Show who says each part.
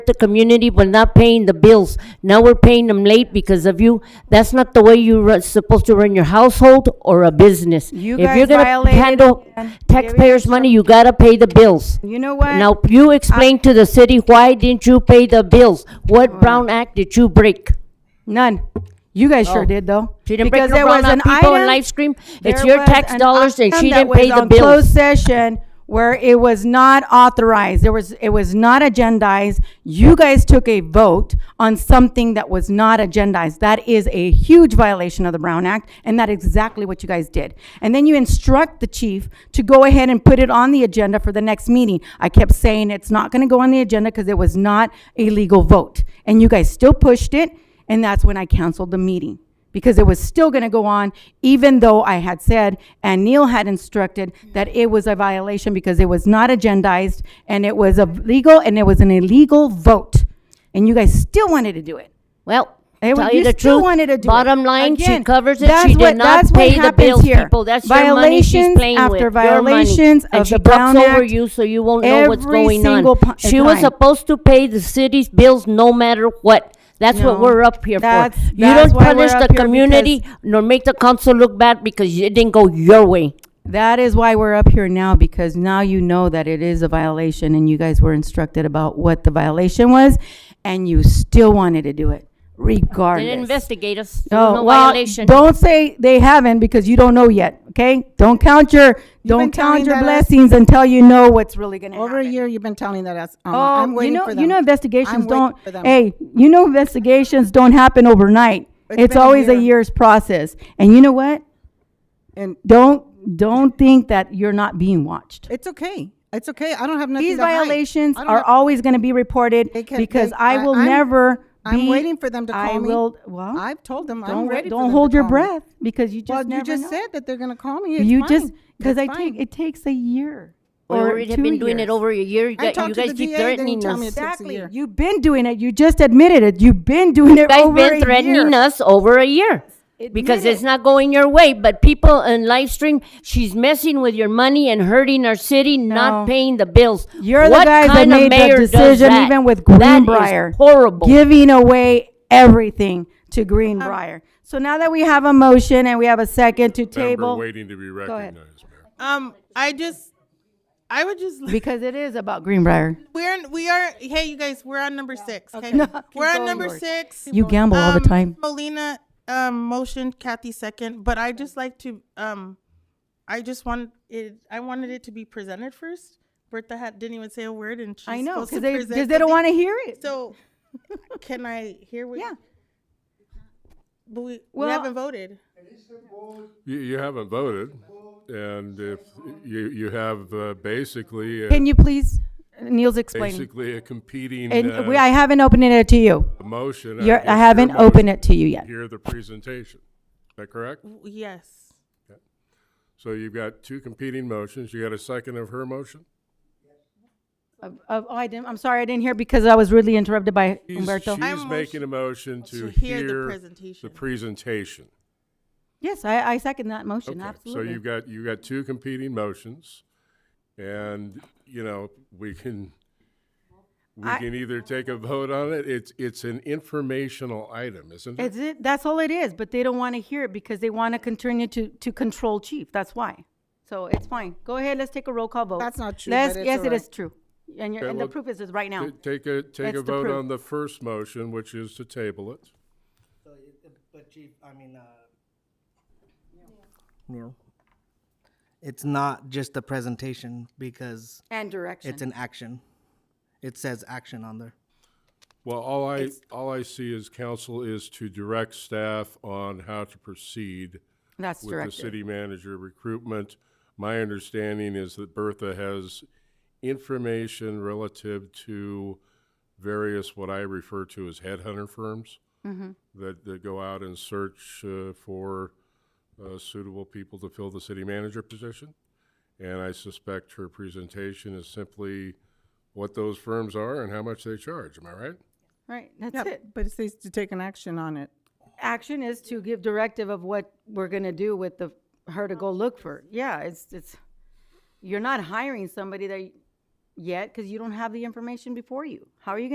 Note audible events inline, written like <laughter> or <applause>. Speaker 1: the community, but not paying the bills. Now we're paying them late because of you. That's not the way you're supposed to run your household or a business.
Speaker 2: You
Speaker 1: If you're
Speaker 2: guys
Speaker 1: gonna
Speaker 2: violated
Speaker 1: handle
Speaker 2: again.
Speaker 1: taxpayers' money, you gotta pay the bills.
Speaker 2: You know what?
Speaker 1: Now, you explain to the city, why didn't you pay the bills? What Brown Act did you break?
Speaker 2: None. You guys
Speaker 1: Oh.
Speaker 2: sure did though.
Speaker 1: She didn't break
Speaker 2: Because
Speaker 1: your
Speaker 2: there
Speaker 1: Brown
Speaker 2: was an
Speaker 1: Act, people in
Speaker 2: item-
Speaker 1: live stream, it's
Speaker 2: there
Speaker 1: your
Speaker 2: was
Speaker 1: tax
Speaker 2: an
Speaker 1: dollars and
Speaker 2: item
Speaker 1: she
Speaker 2: that
Speaker 1: didn't pay
Speaker 2: was
Speaker 1: the
Speaker 2: on Closed
Speaker 1: bills.
Speaker 2: session where it was not authorized. There was, it was not agendized. You guys took a vote on something that was not agendized. That is a huge violation of the Brown Act and that is exactly what you guys did. And then you instruct the chief to go ahead and put it on the agenda for the next meeting. I kept saying it's not gonna go on the agenda because it was not a legal vote. And you guys still pushed it and that's when I canceled the meeting because it was still going to go on, even though I had said and Neil had instructed that it was a violation because it was not agendized and it was a legal and it was an illegal vote. And you guys still wanted to do it.
Speaker 1: Well,
Speaker 2: Hey, well,
Speaker 1: tell you
Speaker 2: you
Speaker 1: the
Speaker 2: still
Speaker 1: truth,
Speaker 2: wanted to do it.
Speaker 1: bottom line, she
Speaker 2: Again,
Speaker 1: covers it,
Speaker 2: that's
Speaker 1: she did
Speaker 2: what-
Speaker 1: not
Speaker 2: that's what
Speaker 1: pay the
Speaker 2: happens
Speaker 1: bills,
Speaker 2: here.
Speaker 1: people, that's your money she's
Speaker 2: Violations
Speaker 1: playing with,
Speaker 2: after
Speaker 1: your money.
Speaker 2: violations of the Brown
Speaker 1: And she talks over
Speaker 2: Act
Speaker 1: you, so you won't know what's
Speaker 2: every
Speaker 1: going on.
Speaker 2: single pu-
Speaker 1: She was
Speaker 2: time.
Speaker 1: supposed to pay the city's bills no matter what, that's what
Speaker 2: No,
Speaker 1: we're up here for.
Speaker 2: that's-
Speaker 1: You
Speaker 2: that's
Speaker 1: don't
Speaker 2: why we're
Speaker 1: punish
Speaker 2: up
Speaker 1: the
Speaker 2: here
Speaker 1: community nor make the council look bad because it didn't go your way.
Speaker 2: That is why we're up here now because now you know that it is a violation and you guys were instructed about what the violation was and you still wanted to do it regardless.
Speaker 1: They didn't investigate us, there was
Speaker 2: Oh,
Speaker 1: no
Speaker 2: well,
Speaker 1: violation.
Speaker 2: don't say they haven't because you don't know yet, okay? Don't count your, don't
Speaker 3: telling
Speaker 2: count your
Speaker 3: that us-
Speaker 2: blessings until you know what's really gonna
Speaker 3: Over a
Speaker 2: happen.
Speaker 3: year, you've been telling that us. Alma.
Speaker 2: Oh,
Speaker 3: I'm
Speaker 2: you
Speaker 3: waiting
Speaker 2: know,
Speaker 3: for them.
Speaker 2: you know investigations
Speaker 3: I'm waiting
Speaker 2: don't,
Speaker 3: for them.
Speaker 2: hey, you know investigations don't happen overnight.
Speaker 3: It's
Speaker 2: It's
Speaker 3: been a
Speaker 2: always a
Speaker 3: year.
Speaker 2: year's process. And you know what?
Speaker 3: And
Speaker 2: Don't, don't think that you're not being watched.
Speaker 3: it's okay. It's okay. I don't have nothing
Speaker 2: These
Speaker 3: to hide.
Speaker 2: violations
Speaker 3: I don't
Speaker 2: are
Speaker 3: have-
Speaker 2: always gonna be reported
Speaker 3: They can-
Speaker 2: because
Speaker 3: they-
Speaker 2: I
Speaker 3: I-
Speaker 2: will
Speaker 3: I'm-
Speaker 2: never
Speaker 3: I'm
Speaker 2: be-
Speaker 3: waiting for them to
Speaker 2: I
Speaker 3: call me.
Speaker 2: will, well,
Speaker 3: I've told them I'm
Speaker 2: don't,
Speaker 3: ready for them
Speaker 2: don't
Speaker 3: to
Speaker 2: hold your
Speaker 3: call me.
Speaker 2: breath because you
Speaker 3: Well,
Speaker 2: just
Speaker 3: you
Speaker 2: never
Speaker 3: just
Speaker 2: know.
Speaker 3: said that they're gonna call me. It's
Speaker 2: You
Speaker 3: fine.
Speaker 2: just, because
Speaker 3: It's
Speaker 2: I
Speaker 3: fine.
Speaker 2: take, it takes a year
Speaker 1: We
Speaker 2: or
Speaker 1: already
Speaker 2: two
Speaker 1: been doing
Speaker 2: years.
Speaker 1: it over a year, you
Speaker 3: I
Speaker 1: got-
Speaker 3: talked
Speaker 1: you
Speaker 3: to
Speaker 1: guys
Speaker 3: the
Speaker 1: keep
Speaker 3: DA, they didn't
Speaker 1: threatening
Speaker 3: tell me
Speaker 1: us.
Speaker 3: It takes a
Speaker 2: Exactly.
Speaker 3: year.
Speaker 2: You've been doing it. You just admitted it. You've been doing it
Speaker 1: guys
Speaker 2: over a
Speaker 1: been
Speaker 2: year.
Speaker 1: threatening us over a year
Speaker 2: Admit
Speaker 1: because it's
Speaker 2: it.
Speaker 1: not going your way. But people in live stream, she's messing with your money and hurting our city, not
Speaker 2: No.
Speaker 1: paying the bills.
Speaker 2: You're
Speaker 1: What
Speaker 2: the guys that
Speaker 1: kind of
Speaker 2: made
Speaker 1: mayor
Speaker 2: the
Speaker 1: does
Speaker 2: decision,
Speaker 1: that?
Speaker 2: even with
Speaker 1: That is
Speaker 2: Greenbrier,
Speaker 1: horrible.
Speaker 2: giving away everything to
Speaker 3: Um,
Speaker 2: Greenbrier. So now that we have a motion and we have a second to
Speaker 4: member
Speaker 2: table,
Speaker 4: waiting to be
Speaker 2: ahead.
Speaker 4: recognized, ma'am.
Speaker 5: Um, I just, I would just.
Speaker 2: because it is about Greenbrier.
Speaker 5: We're we are. Hey, you guys, we're on number six. Okay, we're on number six.
Speaker 2: You gamble all the
Speaker 5: Um,
Speaker 2: time.
Speaker 5: Molina, um, motion. Kathy second. But I just like to, um, I just want it. I wanted it to be presented first. Bertha had, didn't even say a word, and she's
Speaker 2: I know,
Speaker 5: supposed to
Speaker 2: because they,
Speaker 5: present
Speaker 2: 'cause they don't
Speaker 5: something.
Speaker 2: want to hear it.
Speaker 5: So, <laughs> can I hear what?
Speaker 2: Yeah.
Speaker 5: But we,
Speaker 2: Well-
Speaker 5: we haven't voted.
Speaker 4: You, you haven't voted, and if, you, you have uh, basically, a-
Speaker 2: Can you please, Neil's explaining.
Speaker 4: basically a competing
Speaker 2: And we,
Speaker 4: uh,
Speaker 2: I haven't opened it to you.
Speaker 4: motion.
Speaker 2: You're,
Speaker 4: against
Speaker 2: I
Speaker 4: your
Speaker 2: haven't
Speaker 4: motion.
Speaker 2: opened it to you yet.
Speaker 4: Hear the presentation, is that correct?
Speaker 5: W- Yes.
Speaker 4: So you've got two competing motions, you got a second of her motion?
Speaker 2: Of- of- Oh, I didn't, I'm sorry, I didn't hear because I was really interrupted by
Speaker 4: She's-
Speaker 2: Umberto.
Speaker 4: She's
Speaker 5: I'm
Speaker 4: making a motion
Speaker 5: hear
Speaker 4: to
Speaker 5: the
Speaker 4: hear the
Speaker 5: presentation.
Speaker 4: presentation.
Speaker 2: Yes, I, I second that motion,
Speaker 4: Okay,
Speaker 2: absolutely.
Speaker 4: So you've got, you've got two competing motions, and, you know, we can, we
Speaker 2: I-
Speaker 4: can either take a vote on it, it's, it's an informational item, isn't it?
Speaker 2: It's it, that's all it is, but they don't want to hear it because they want to continue to, to control chief, that's why. So it's fine, go ahead, let's take a roll call vote.
Speaker 3: That's not true,
Speaker 2: Let's-
Speaker 3: but it's
Speaker 2: Yes,
Speaker 3: all
Speaker 2: it
Speaker 3: right.
Speaker 2: is true, and you're,
Speaker 4: Okay,
Speaker 2: and the
Speaker 4: well,
Speaker 2: proof is, is right now.
Speaker 4: Ta- Take a, take
Speaker 2: That's the
Speaker 4: a vote
Speaker 2: proof.
Speaker 4: on the first motion, which is to table it.
Speaker 6: But Chief, I mean, uh. No. It's not just a presentation because
Speaker 2: And direction.
Speaker 6: it's an action. It says action on there.
Speaker 4: Well, all I, all I see is council is to direct staff on how to proceed
Speaker 2: That's
Speaker 4: with the
Speaker 2: directed.
Speaker 4: city manager recruitment. My understanding is that Bertha has information relative to various, what I refer to as headhunter firms
Speaker 2: Mm-hmm.
Speaker 4: that, that go out and search uh, for uh, suitable people to fill the city manager position. And I suspect her presentation is simply what those firms are and how much they charge. Am I right?
Speaker 2: Right, that's
Speaker 3: Yeah,
Speaker 2: it.
Speaker 3: but it says to take an action on it.
Speaker 2: Action is to give directive of what we're gonna do with the, her to go look for. Yeah, it's, it's, you're not hiring somebody that, y- yet, because you don't have the information before you. How are you gonna